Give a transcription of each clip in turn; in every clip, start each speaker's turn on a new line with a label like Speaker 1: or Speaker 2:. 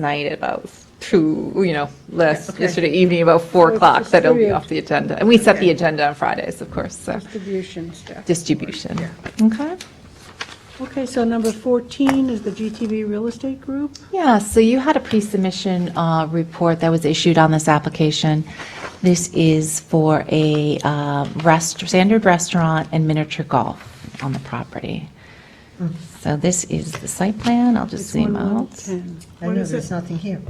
Speaker 1: night about two, you know, last, yesterday evening about 4 o'clock, that it'll be
Speaker 2: distributed.
Speaker 1: off the agenda. And we set the agenda on Fridays, of course, so
Speaker 2: distribution stuff.
Speaker 1: distribution. Okay.
Speaker 2: Okay, so number 14 is the GTV Real Estate Group.
Speaker 3: Yeah, so you had a pre-submission uh, report that was issued on this application. This is for a uh, rest- standard restaurant and miniature golf on the property. So this is the site plan, I'll just
Speaker 2: It's Hmm. one
Speaker 3: zoom
Speaker 2: one
Speaker 3: out.
Speaker 2: ten.
Speaker 4: I
Speaker 2: What
Speaker 4: know,
Speaker 2: is
Speaker 4: there's
Speaker 2: it?
Speaker 4: nothing here.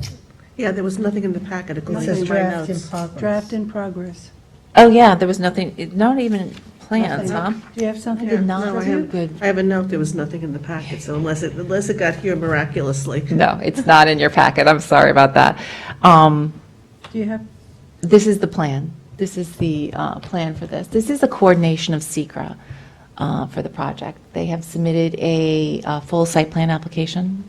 Speaker 5: Yeah, there was nothing in the packet
Speaker 4: It
Speaker 5: according
Speaker 4: says
Speaker 5: to my
Speaker 4: draft in
Speaker 5: notes.
Speaker 4: progress.
Speaker 2: Draft in progress.
Speaker 3: Oh, yeah, there was nothing, it- not even plans, huh?
Speaker 2: Nothing. Do you have something?
Speaker 3: I did not
Speaker 5: No, I
Speaker 3: do
Speaker 5: have,
Speaker 3: good.
Speaker 5: I have a note, there was nothing in the packet, so unless it, unless it got here miraculously.
Speaker 1: No, it's not in your packet, I'm sorry about that. Um,
Speaker 2: Do you have,
Speaker 3: This is the plan. This is the uh, plan for this. This is a coordination of Secra uh, for the project. They have submitted a uh, full site plan application.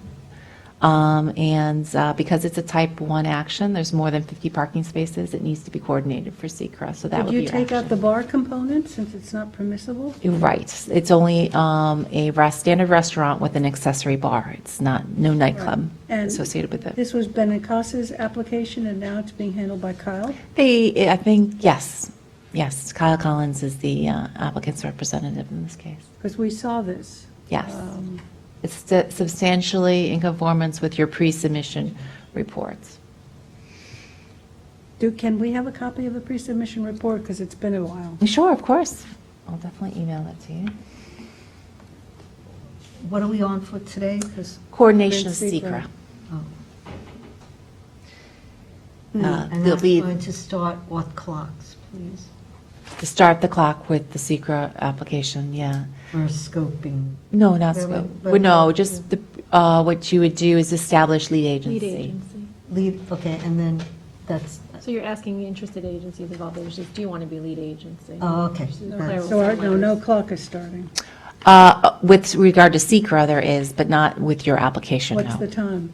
Speaker 3: Um, And uh, because it's a type 1 action, there's more than 50 parking spaces, it needs to be coordinated for Secra, so that
Speaker 2: did
Speaker 3: would be
Speaker 2: you
Speaker 3: your
Speaker 2: take out
Speaker 3: action.
Speaker 2: the bar component since it's not permissible?
Speaker 3: You're Right. It's only um, a rest- standard restaurant with an accessory bar. It's not, no nightclub
Speaker 2: And
Speaker 3: associated with it.
Speaker 2: This was Benicasa's application, and now it's being handled by Kyle.
Speaker 3: They, I think, yes, yes. Kyle Collins is the uh, applicant's representative in this case.
Speaker 2: Because we saw this.
Speaker 3: Yes.
Speaker 2: Um,
Speaker 3: It's stu- substantially in conformance with your pre-submission reports.
Speaker 2: Do, can we have a copy of the pre-submission report? Because it's been a while.
Speaker 3: Sure, of course. I'll definitely email that to you.
Speaker 4: What are we on for today? 'Cause-
Speaker 3: Coordination of
Speaker 2: Great
Speaker 3: SECR.
Speaker 4: oh.
Speaker 3: Uh,
Speaker 4: And
Speaker 3: They'll
Speaker 4: that's
Speaker 3: be,
Speaker 4: going to start what clocks, please?
Speaker 3: to start the clock with the SECR application, yeah.
Speaker 4: Or scoping?
Speaker 3: No, not
Speaker 4: Wait,
Speaker 3: scope.
Speaker 4: wait,
Speaker 3: Well, No,
Speaker 4: wait.
Speaker 3: just the, uh, what you would do is establish lead
Speaker 6: Lead
Speaker 3: agency.
Speaker 6: agency.
Speaker 4: Leave, okay, and then that's,
Speaker 6: So you're asking the interested agencies involved, there's just, do you want to be lead agency?
Speaker 4: oh, okay. that's-
Speaker 2: So, our- no, no clock is starting.
Speaker 3: Uh, With regard to SECR, there is, but not with your application, no.
Speaker 2: What's the time?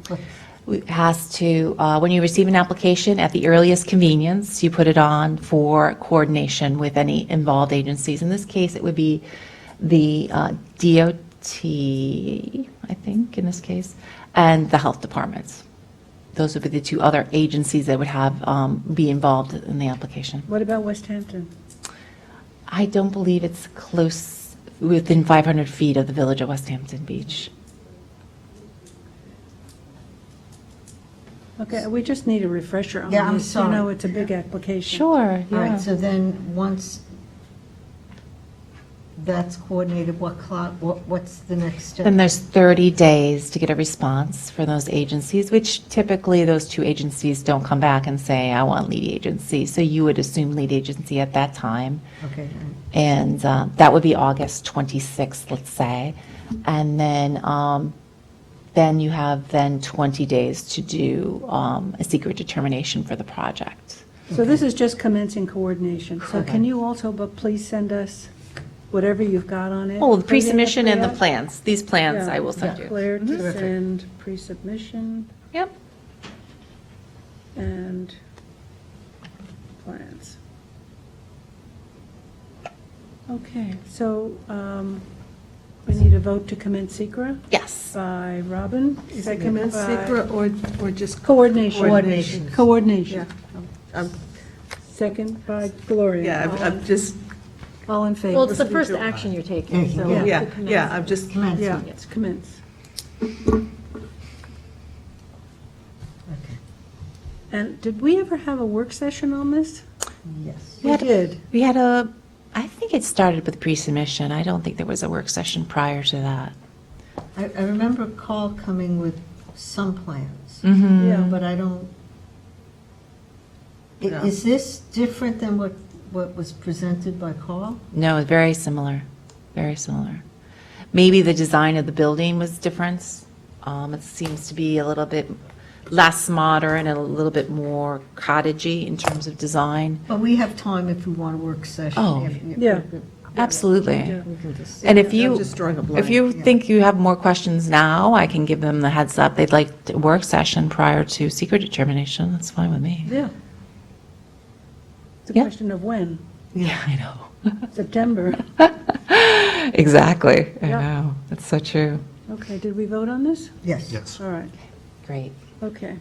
Speaker 3: has to, uh, when you receive an application, at the earliest convenience, you put it on for coordination with any involved agencies. In this case, it would be the uh, DOT, I think, in this case, and the health departments. Those would be the two other agencies that would have, um, be involved in the application.
Speaker 2: What about West Hampton?
Speaker 3: I don't believe it's close, within 500 feet of the village of West Hampton Beach.
Speaker 2: Okay, we just need a refresher on this.
Speaker 4: Yeah, I'm
Speaker 2: You know,
Speaker 4: sorry.
Speaker 2: it's a big application.
Speaker 3: Sure,
Speaker 4: All
Speaker 3: yeah.
Speaker 4: right, so then, once that's coordinated, what clock, what, what's the next step?
Speaker 3: Then there's 30 days to get a response from those agencies, which typically those two agencies don't come back and say, I want lead agency. So you would assume lead agency at that time.
Speaker 4: Okay, all right.
Speaker 3: And uh, that would be August 26th, let's say. Uh, And then, um, then you have then 20 days to do um, a secret determination for the project.
Speaker 2: So this is just commencing coordination. So can you also, but please send us whatever you've got on it?
Speaker 3: Oh, the pre-submission and the
Speaker 2: plan.
Speaker 3: plans, these plans I will send you.
Speaker 2: Claire to
Speaker 4: Mm-hmm.
Speaker 2: send pre-submission
Speaker 3: Yep.
Speaker 2: and plans. Okay, so um, we need a vote to commence secra
Speaker 3: Yes.
Speaker 2: by Robin.
Speaker 5: Is that commence
Speaker 2: By-
Speaker 5: secret or, or just?
Speaker 2: Coordination.
Speaker 4: Coordination.
Speaker 5: Yeah,
Speaker 2: Coordination.
Speaker 5: I'm- I'm,
Speaker 2: Second by Gloria.
Speaker 5: yeah, I'm- I'm just,
Speaker 2: All in favor?
Speaker 6: Well, it's the first action you're taking, so.
Speaker 4: Yeah.
Speaker 5: yeah, yeah, I'm just,
Speaker 4: Commence.
Speaker 5: yeah.
Speaker 2: Let's commence.
Speaker 4: Okay.
Speaker 2: And did we ever have a work session on this?
Speaker 4: Yes.
Speaker 3: We had-
Speaker 2: did.
Speaker 3: We had a, I think it started with pre-submission. I don't think there was a work session prior to that.
Speaker 4: I, I remember a call coming with some plans.
Speaker 5: Mm-hmm.
Speaker 2: Yeah.
Speaker 4: But I don't, I-
Speaker 5: No.
Speaker 4: is this different than what, what was presented by Carl?
Speaker 3: No, very similar, very similar. Maybe the design of the building was different. Um, It seems to be a little bit less modern and a little bit more cottagey in terms of design.
Speaker 4: But we have time if we want a work session.
Speaker 3: Oh,
Speaker 4: if- if-
Speaker 2: yeah.
Speaker 3: Absolutely.
Speaker 2: Yeah.
Speaker 4: We can just,
Speaker 3: And if
Speaker 5: I'm
Speaker 3: you,
Speaker 5: just drawing a blank.
Speaker 3: if you think you have more questions now, I can give them the heads up. They'd like a work session prior to secret determination. That's fine with me.
Speaker 2: Yeah. It's a
Speaker 3: Yeah.
Speaker 2: question of when,
Speaker 3: Yeah, I know.
Speaker 2: September.
Speaker 3: Exactly. I
Speaker 2: Yeah.
Speaker 3: know. That's so true.
Speaker 2: Okay, did we vote on this?
Speaker 4: yes.
Speaker 2: All right,
Speaker 3: Great.
Speaker 2: okay.